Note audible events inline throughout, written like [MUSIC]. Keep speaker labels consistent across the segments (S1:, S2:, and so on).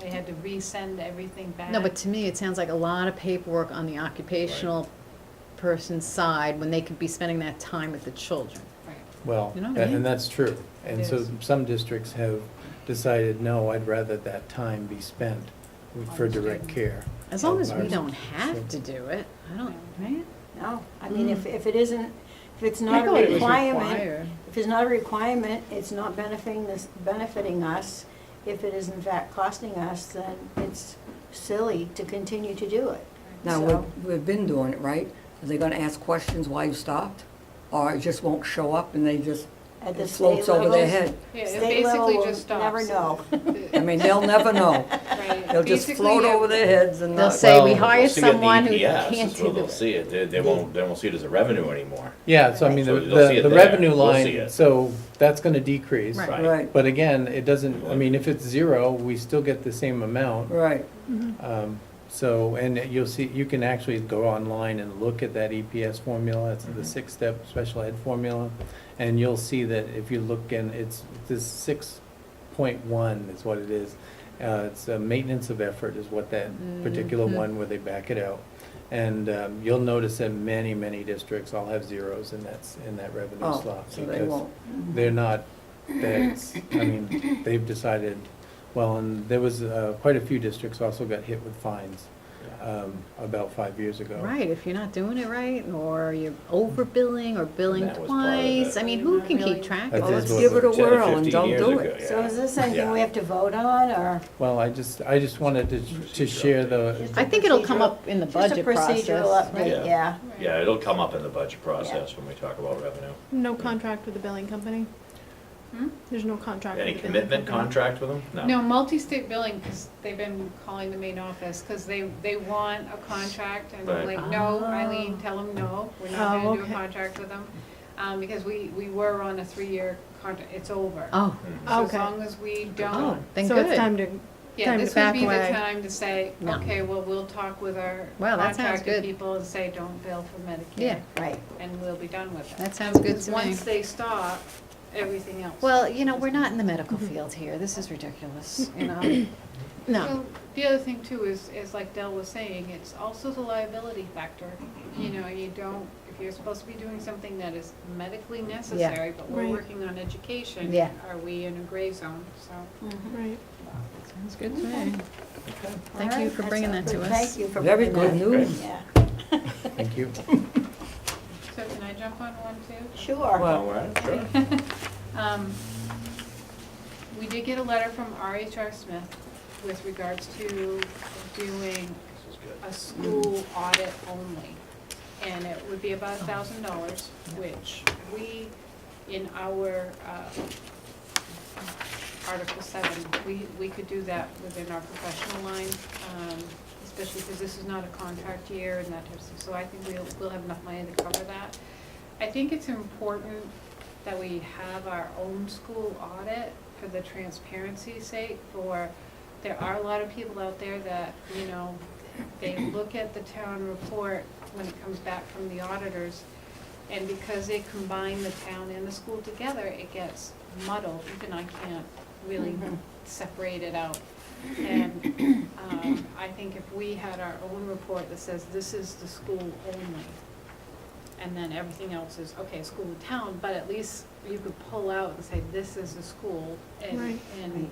S1: They had to resend everything back.
S2: No, but to me, it sounds like a lot of paperwork on the occupational person's side when they could be spending that time with the children.
S1: Right.
S3: Well,
S2: You know what I
S3: that-
S2: mean?
S3: and that's true. And so
S1: Yes.
S3: some districts have decided, no, I'd rather that time be spent for direct care.
S2: As long as we
S3: Ours-
S2: don't have to do it, I don't, right?
S4: No, I mean, if,
S2: Mm.
S4: if it isn't, if it's
S2: I
S4: not a
S2: thought it was
S4: requirement,
S2: required.
S4: if it's not a requirement, it's not benefiting this, benefiting us. If it is in fact costing us, then it's silly to continue to do it.
S5: Now,
S4: So-
S5: we've, we've been doing it, right? Are they gonna ask questions why you stopped? Or it just won't show up and they just,
S4: At the
S5: it
S4: state
S5: floats over their
S4: level-
S5: head?
S1: Yeah, it
S4: State level
S1: basically
S4: will
S1: just
S4: never
S1: stops. [LAUGHS]
S5: I mean, they'll
S4: [LAUGHS]
S5: never know.
S1: Right.
S5: They'll just
S1: Basically,
S5: float
S1: it-
S5: over their heads and
S2: They'll
S5: not.
S2: say, we
S3: Well,
S2: hired
S6: They'll see it in the
S2: someone who
S6: EPS is
S2: can't
S6: where
S2: do
S6: They'll
S2: it.
S6: see it, they, they won't, they won't see it as a revenue anymore.
S3: Yeah, so I mean, the,
S6: So they'll see
S3: the
S6: it
S3: the
S6: there.
S3: revenue
S6: We'll see
S3: line,
S6: it.
S3: so that's gonna decrease.
S2: Right.
S5: Right,
S3: But again, it doesn't, I mean, if it's zero, we still get the same amount.
S5: right.
S3: Um, So, and you'll see, you can actually go online and look at that EPS formula, it's
S5: Mm-hmm.
S3: the
S6: Mhm.
S3: six-step special ed formula, and you'll see that if you look in, it's, this six point one is what it is. Uh, It's a maintenance of effort is what that
S5: Mm-hmm.
S3: particular
S2: Mhm.
S3: one where they back it out. And um, you'll notice that many, many districts all have zeros in that, s- in that revenue
S5: Oh,
S3: slot.
S5: so they
S3: because
S5: won't.
S3: they're not, that's, I mean, they've decided, well, and there was, uh, quite a few districts also got hit with fines, um, about five years ago.
S2: Right, if you're not doing it right, or you're overbilling or billing
S6: That was part of it.
S2: twice, I mean, who can keep track of
S3: That
S5: Well,
S3: is
S5: let's
S2: this?
S3: what
S5: give it a
S3: the-
S6: Ten or
S5: whirl and
S6: 15
S5: don't
S6: years
S5: do
S6: ago,
S5: it.
S6: yeah.
S4: So is this something
S6: Yeah.
S4: we have to vote on, or?
S3: Well, I just, I just wanted to, to share the,
S2: I think it'll come up in the
S4: Just a
S2: budget
S4: procedural
S2: process.
S4: update,
S6: Yeah.
S4: yeah.
S6: Yeah, it'll come up in the budget process when we talk about revenue.
S7: No contract with the billing company?
S1: Hmm?
S7: There's no contract with
S6: Any
S7: the billing company?
S6: commitment contract with them?
S1: No, multi-state billing, because they've been calling the main office, because they, they want a contract, and I'm
S6: Right.
S1: like, no,
S2: Oh.
S1: Eileen, tell them no, we're
S7: Oh,
S1: not gonna do a
S7: okay.
S1: contract with them. Um, because we, we were on a three-year contract, it's over.
S2: Oh,
S6: Mhm.
S1: So as
S7: Okay.
S1: long as we
S2: oh,
S1: don't,
S2: then
S7: So it's time
S2: good.
S7: to,
S1: yeah,
S7: time to
S1: this would be the
S7: back away.
S1: time to say,
S2: No.
S1: okay, well, we'll talk with our
S2: Wow, that sounds
S1: contracted
S2: good.
S1: people and say, don't bill for Medicare.
S2: Yeah,
S4: Right.
S1: And we'll be done with it.
S2: that sounds good
S1: Because
S2: to me.
S1: once they stop, everything else.
S2: Well, you know, we're not in the medical field here. This is ridiculous, you
S4: [CLEARS THROAT]
S2: know? No.
S1: So The other thing too is, is like Dell was saying, it's also the liability factor. You know, you don't, if you're supposed to be doing something that is medically necessary, but we're
S7: Right.
S1: working on education.
S2: Yeah.
S1: Are we in a gray zone, so.
S7: right.
S2: Sounds good to me. Thank
S4: All
S2: you
S4: right,
S2: for
S4: that
S2: bringing that
S4: sounds
S2: to
S4: good.
S2: us.
S4: Thank you for
S5: Very
S4: bringing
S5: good
S4: that.
S5: news.
S4: Yeah,
S3: thank you.
S1: So can I jump on one too?
S4: sure.
S6: All
S5: [LAUGHS]
S6: right, sure.
S1: [LAUGHS] Um, We did get a letter from RHR Smith with regards to doing
S6: This is good.
S1: a school audit only. And it would be about a thousand dollars, which we, in our, uh, Article seven, we, we could do that within our professional line, um, especially because this is not a contract year and that type of stuff. So I think we'll, we'll have enough money to cover that. I think it's important that we have our own school audit for the transparency's sake, for, there are a lot of people out there that, you know, they look at the town report when it comes back from the auditors, and because they combine the town and the school together, it gets muddled, even I can't really separate it out. And, um, I think if we had our own report that says this is the school only, and then everything else is, okay, school and town, but at least you could pull out and say, this is the school, and,
S7: Right.
S1: and,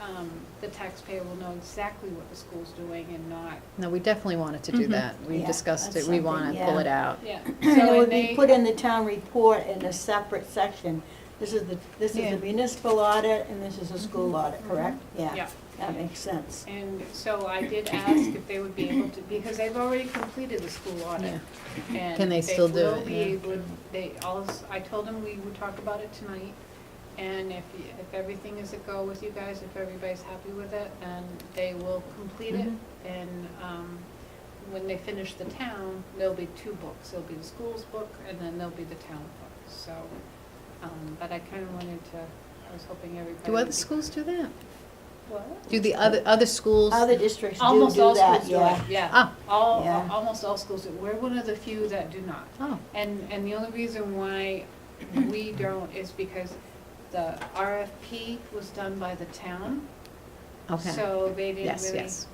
S1: um, the taxpayer will know exactly what the school's doing and not,
S2: No, we definitely wanted to do
S7: Mhm.
S2: that. We
S4: Mm-hmm. Yeah,
S2: discussed it.
S4: that's
S2: We want to
S4: something,
S2: pull
S4: yeah.
S2: it out.
S1: yeah.
S4: [CLEARS THROAT] And
S1: So,
S4: it would
S1: they-
S4: be put in the town report in a separate section. This is the, this is
S2: Yeah.
S4: the municipal audit and this is a school audit, correct?
S1: Mm-hmm. Yeah.
S4: That makes sense.
S1: And so I did ask if they would be able to, because they've already completed the school audit. and
S2: Can they still do
S1: will
S2: it?
S1: be
S2: Yeah.
S1: able- They also, I told them we would talk about it tonight, and if, y- if everything is a go with you guys, if everybody's happy with it, then they will complete it.
S2: Mhm.
S1: And, um, when they finish the town, there'll be two books, there'll be the school's book, and then there'll be the town book, so, um, but I kinda wanted to, I was hoping everybody.
S2: Do
S1: would
S2: other
S1: be-
S2: schools do that?
S1: What?
S2: Do the other, other schools?
S4: Other districts do
S1: Almost
S4: do
S1: all
S4: that,
S1: schools do it,
S4: yeah.
S1: yeah.
S2: Ah.
S1: All,
S4: Yeah.
S1: almost all schools do. We're one of the few that do not.
S2: Oh,
S1: And, and the only reason why we don't is because the RFP was done by the town
S2: Okay.
S1: So they didn't
S2: Yes,
S1: really
S2: yes.